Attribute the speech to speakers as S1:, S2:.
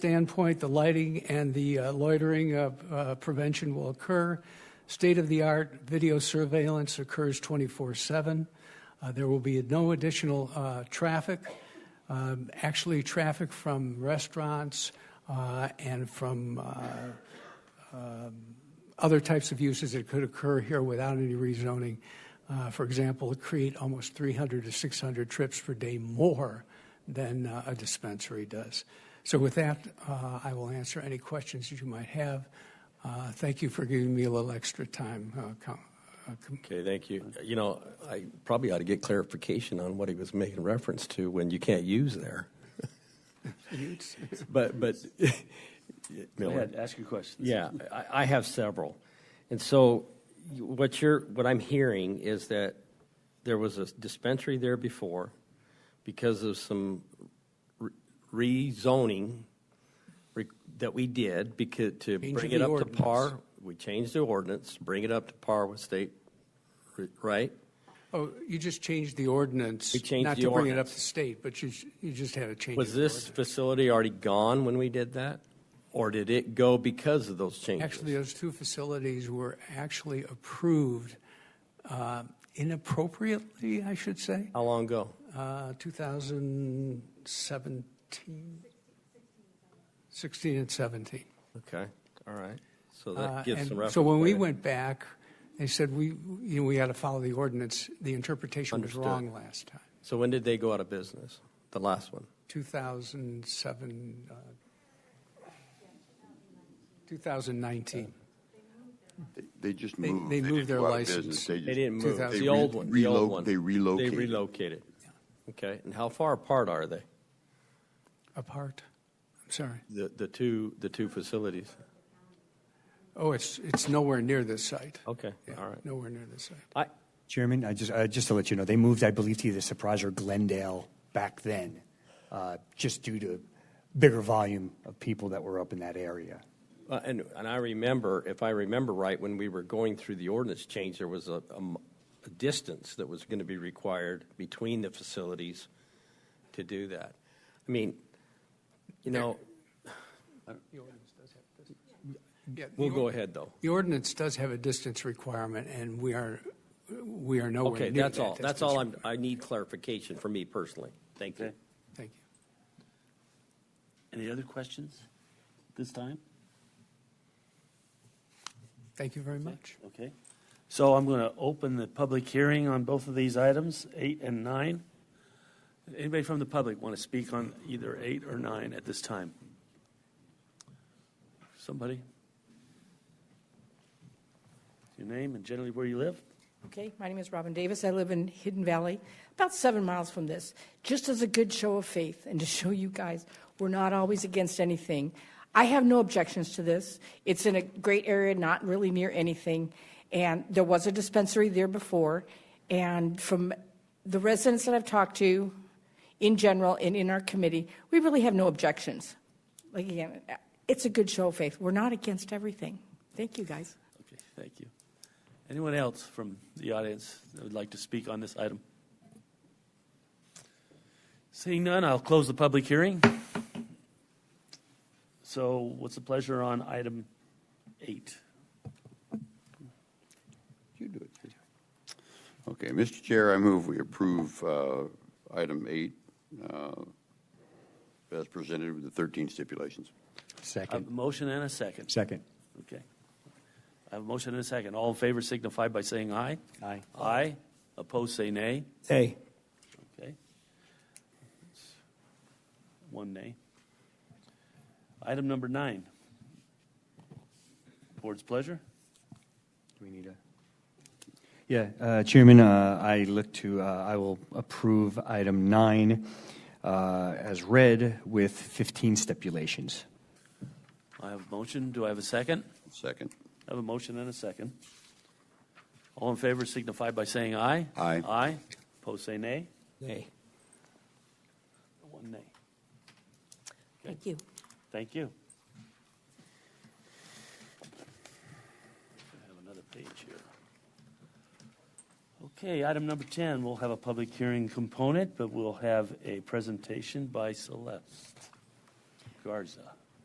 S1: standpoint, the lighting and the uh, loitering uh, uh, prevention will occur. State-of-the-art video surveillance occurs 24/7. Uh, There will be no additional uh, traffic. Um, Actually, traffic from restaurants uh, and from uh, other types of uses that could occur here without any rezoning. Uh, For example, create almost 300 to 600 trips per day more than uh, a dispensary does. So with that, uh, I will answer any questions that you might have. Uh, Thank you for giving me a little extra time. uh, Com- uh, Com-
S2: Okay, thank you. You know, I probably ought to get clarification on what he was making reference to when you can't use there. But, but,
S3: Go
S2: Miller,
S3: ahead, ask your question.
S4: Yeah, I, I have several. And so you- what you're, what I'm hearing is that there was a dispensary there before because of some re- rezoning re- that we did because, to
S1: Changing
S4: bring it
S1: the
S4: up to par.
S1: ordinance.
S4: We changed the ordinance, bring it up to par with state, re- right?
S1: Oh, you just changed the ordinance.
S4: We changed
S1: Not
S4: the
S1: to bring it up
S4: ordinance.
S1: to state, but you sh- you just had a change.
S4: Was
S1: of the
S4: this
S1: ordinance.
S4: facility already gone when we did that? Or did it go because of those changes?
S1: Actually, uh, those two facilities were actually approved uh, inappropriately, I should say.
S4: How long ago?
S1: Uh, 2017, 16 and 17.
S4: Okay, all right. So
S1: Uh,
S4: that gives some
S1: and
S4: reference.
S1: So when we
S4: there.
S1: went back, they said, we, you know, we got to follow the ordinance. The interpretation was
S4: Understood.
S1: wrong last time.
S4: So when did they go out of business? The last one?
S1: 2007, uh, 2019.
S5: They just
S1: They-
S5: moved.
S1: they moved
S5: didn't
S1: their
S5: go out of
S1: license.
S5: business. They
S4: They
S5: just-
S4: didn't move.
S1: 2000.
S4: The old
S5: They
S4: one, the old
S5: relo-
S4: one.
S5: they relocated.
S4: They relocated. Okay, and how far apart are they?
S1: Apart? I'm sorry.
S4: The, the two, the two facilities?
S1: Oh, it's, it's nowhere near this site.
S4: Okay,
S1: Yeah,
S4: all right.
S1: Nowhere near this site.
S4: I,
S6: Chairman, I just, uh, just to let you know, they moved, I believe, to either Surprise or Glendale back then, uh, just due to bigger volume of people that were up in that area.
S4: uh, and, and I remember, if I remember right, when we were going through the ordinance change, there was a, a m- a distance that was going to be required between the facilities to do that. I mean, you know,
S1: Yeah, the
S4: we'll
S1: or-
S4: go ahead though.
S1: The ordinance does have a distance requirement, and we are, we are nowhere near
S4: Okay,
S1: that.
S4: that's all. That's
S1: distance
S4: all I'm,
S1: requirement.
S4: I need clarification for me personally. Thank you.
S3: Okay.
S1: Thank you.
S3: Any other questions this time?
S1: Thank you very much.
S3: Okay. So I'm going to open the public hearing on both of these items, eight and nine. Anybody from the public want to speak on either eight or nine at this time? Somebody? Your name and generally where you live?
S7: Okay, my name is Robin Davis. I live in Hidden Valley, about seven miles from this, just as a good show of faith and to show you guys we're not always against anything. I have no objections to this. It's in a great area, not really near anything. And there was a dispensary there before. And from the residents that I've talked to in general and in our committee, we really have no objections. Like, again, it's a good show of faith. We're not against everything. Thank you, guys.
S3: Okay, thank you. Anyone else from the audience that would like to speak on this item? Seeing none, I'll close the public hearing. So what's the pleasure on item eight?
S5: You do it. Okay, Mr. Chair, I move we approve uh, item eight uh, as presented with the 13 stipulations.
S3: I have a
S6: Second.
S3: motion and a second.
S6: Second.
S3: Okay. I have a motion and a second. All in favor signify by saying aye.
S6: Aye.
S3: Aye. Opposed, say nay.
S4: Hey.
S3: Okay. One nay. Item number nine. Board's pleasure.
S6: Do we need a? Yeah, uh, Chairman, uh, I look to, uh, I will approve item nine uh, as read with 15 stipulations.
S3: I have a motion. Do I have a second?
S5: Second.
S3: I have a motion and a second. All in favor signify by saying aye.
S5: Aye.
S3: Aye. Opposed, say nay.
S4: Hey.
S3: One nay.
S7: Thank you.
S3: Thank you. I have another page here. Okay, item number 10, we'll have a public hearing component, but we'll have a presentation by Celeste Garza.